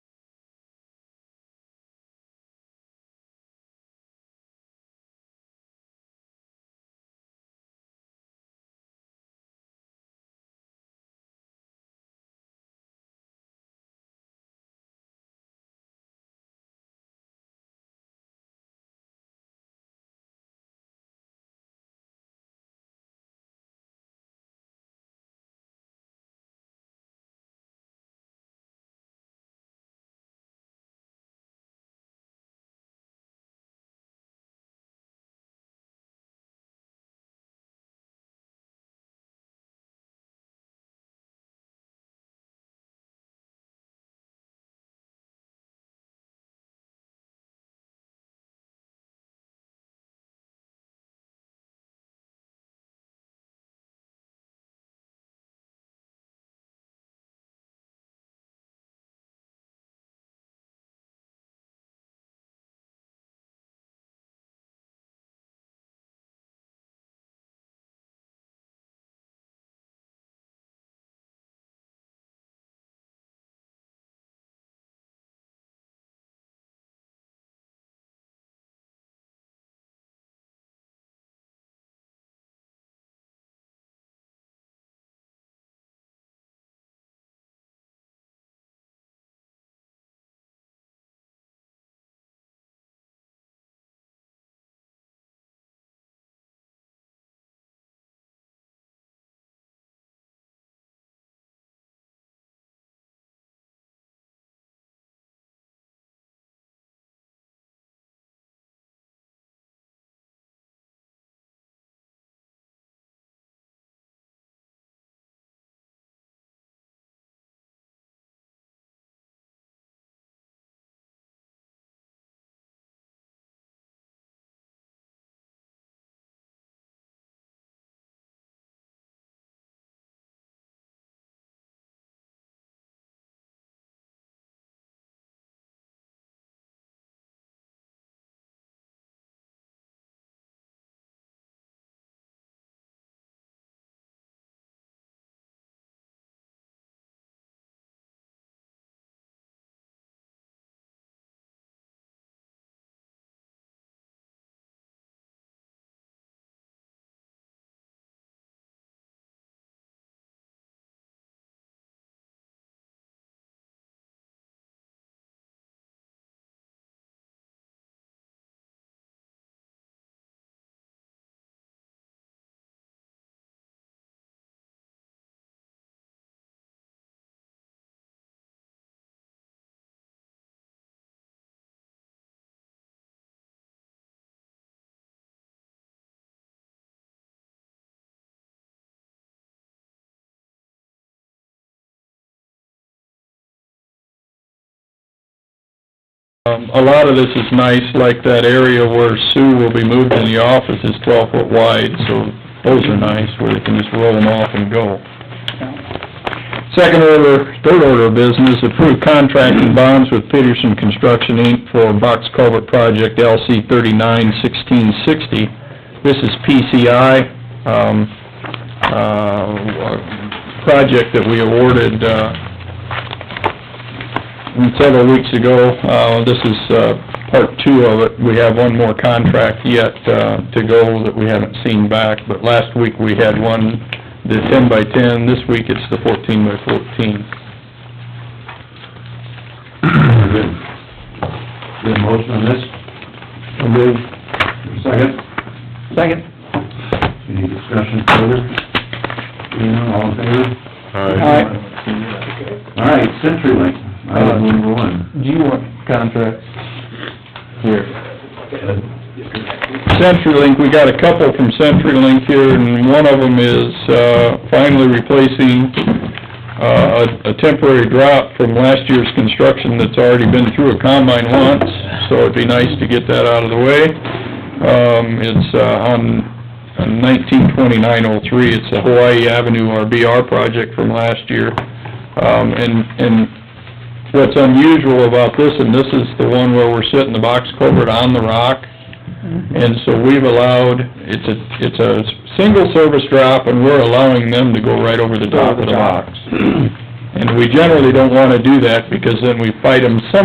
Um, a lot of this is nice, like that area where Sue will be moved in the office is twelve foot wide, so those are nice, where they can just roll them off and go. Second order, third order of business, approve contract and bonds with Peterson Construction Inc. for Box Culvert Project LC thirty-nine sixteen sixty. This is PCI, um, uh, project that we awarded, uh, several weeks ago. Uh, this is, uh, part two of it. We have one more contract yet, uh, to go that we haven't seen back, but last week we had one, the ten by ten, this week it's the fourteen by fourteen. Good. Good motion on this? So moved. Second? Second. Any discussion further? Seeing none, all in favor? Aye. Uh, All right, CenturyLink, item number one. Do you want contracts? Here. CenturyLink, we got a couple from CenturyLink here, and one of them is, uh, finally replacing, uh, a- a temporary drop from last year's construction that's already been through a combine once, so it'd be nice to get that out of the way. Um, it's, uh, on nineteen twenty-nine oh three, it's the Hawaii Avenue RBR project from last year. Um, and, and what's unusual about this, and this is the one where we're setting the box culvert on the rock, and so we've allowed, it's a, it's a single service drop, and we're allowing them to go right over the top of the box. And we generally don't wanna do that, because then we fight them some